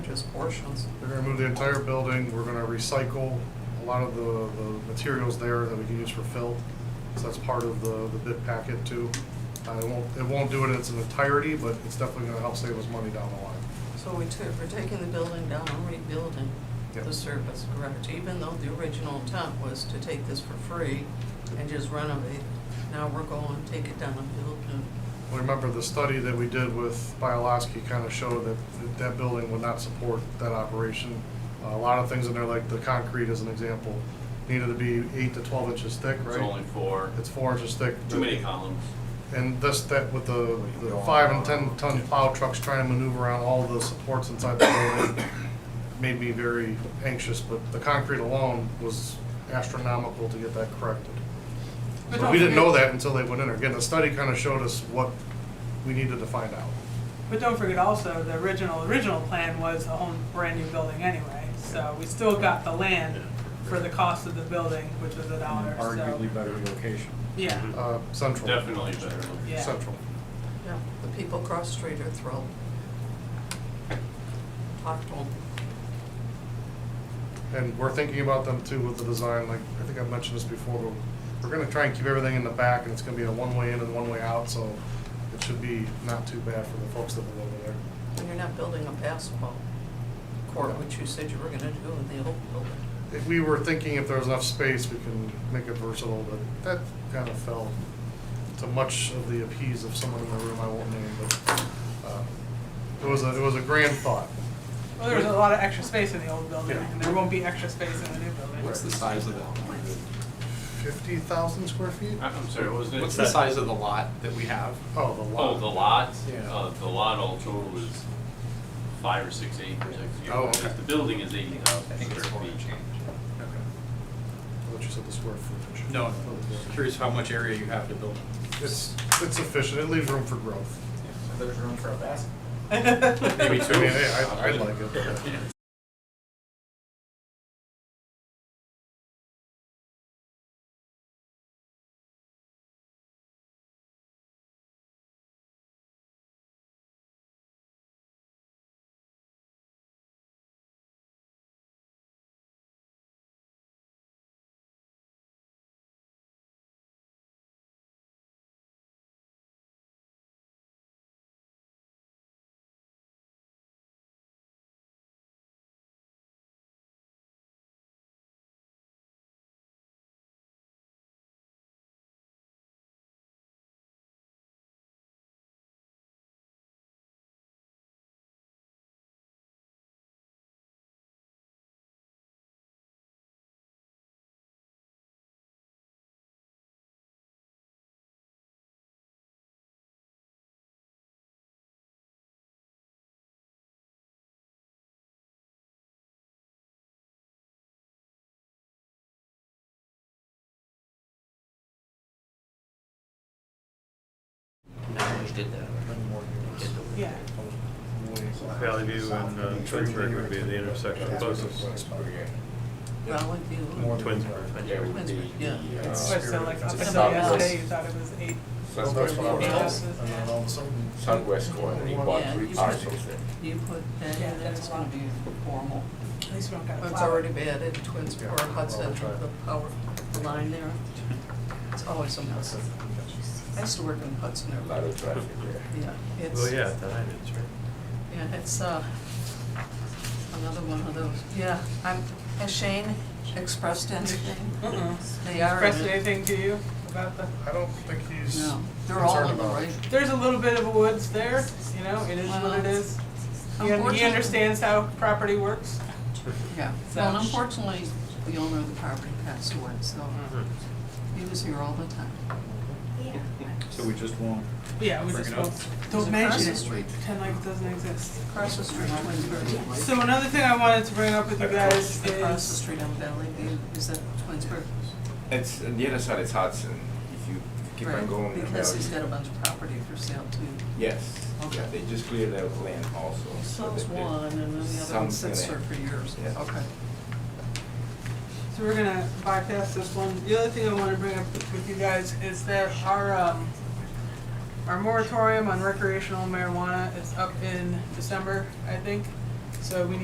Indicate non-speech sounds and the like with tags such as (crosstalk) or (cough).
just portions. They're gonna move the entire building, we're gonna recycle a lot of the, the materials there that we can use for fill. So that's part of the, the bid packet too. Uh, it won't, it won't do it in its entirety, but it's definitely gonna help save us money down the line. So we took, we're taking the building down and rebuilding Yep. the surface, correct? Even though the original intent was to take this for free and just renovate, now we're going to take it down and build new. Well, Remember, the study that we did with Bioloski kind of showed that that that building would not support that operation. Uh, A lot of things in there, like the concrete as an example, needed to be eight to twelve inches thick, right? It's only four, It's four inches thick. too many columns. And this, that, with the, the five and ten ton plow trucks trying to maneuver around all the supports inside the building made me very anxious, but the concrete alone was astronomical to get that corrected. So we didn't know that until they went in there. Again, the study kind of showed us what we needed to find out. But don't forget also, the original, original plan was a whole brand new building anyway. So we still got the land for the cost of the building, which was a dollar, so. Arguably better location. Mm-hmm. Yeah, Uh, Central. Definitely better. Yeah. Central. Yeah, the people cross street are thrilled. Talk to 'em. And we're thinking about them too with the design, like, I think I've mentioned this before, but we're gonna try and keep everything in the back and it's gonna be a one-way in and one-way out, so it should be not too bad for the folks that live over there. And you're not building a basketball court, which you said you were gonna do in the old building. If we were thinking if there was enough space, we can make it versatile, but that kind of fell to much of the appease of someone in the room I won't name, but, uh, it was a, it was a grand thought. well, there was a lot of extra space in the old building, Yeah. and there won't be extra space in the new building. What's the size of the lot? Fifty thousand square feet? I- I'm sorry, what was it? What's the size of the lot that we have? Oh, the Oh, the lot. lot? Yeah. Uh, the lot all total was five or six acres. I forget Oh, what it is. okay. The building is eighty thousand square feet. Okay. What you said, the square footage. Oh, No, no, curious how much area you have to build. It's, it's efficient, it leaves room for growth. There's room for a basket. (laughs) Maybe I mean, two. hey, I, I'd like it. but- Yeah, Uh, Valley View and uh, Twinsburg would be the intersection of both. Well, if you, Twinsburg. Yeah, it would be- uh, yeah. but so like, up It's until about this. yesterday, you thought it was eight Well, that's what I was- Yes. and then all of a sudden- Southwest corner, he bought Yeah, three you- parcels there. You put that Yeah, in, that's it's a lot. gonna be formal. At least we don't got a It's flower. already bad at Twins Yeah, Park, Hudson, I'll try it. the power line there. It's always a mess. I used to work in Hudson A every lot day. of traffic there. Yeah, it's. Well, yeah, that is, right? Yeah, it's, uh, another one of those, yeah. I'm, has Shane expressed anything? Mm-mm. They are. Expressed anything to you about the, I don't think he's No, concerned they're all in the about it. right. there's a little bit of a woods there, you know, it is what it is. He un- He Unfortunately- understands how property works. Yeah, well, unfortunately, the owner of the property passed away, so Mm-hmm. he was here all the time. So we just won't. Yeah, we Bring just it up. won't. It's Don't across mention the it. street. Pretend like it doesn't exist. Across the street, Twinsburg. So another thing I wanted to bring up with you Across guys the is, street on Valley View, is that Twinsburg? It's, on the other side is Hudson, if you keep on Right, going. down Because he's got Valley. a bunch of property for sale too. Yes, Okay. yeah, they just cleared that land also. so Sells that they- one and then the other one Some's sits there gonna- for years. Yeah. Okay. so we're gonna bypass this one. The other thing I wanna bring up with you guys is that our, um, our moratorium on recreational marijuana is up in December, I think. So we need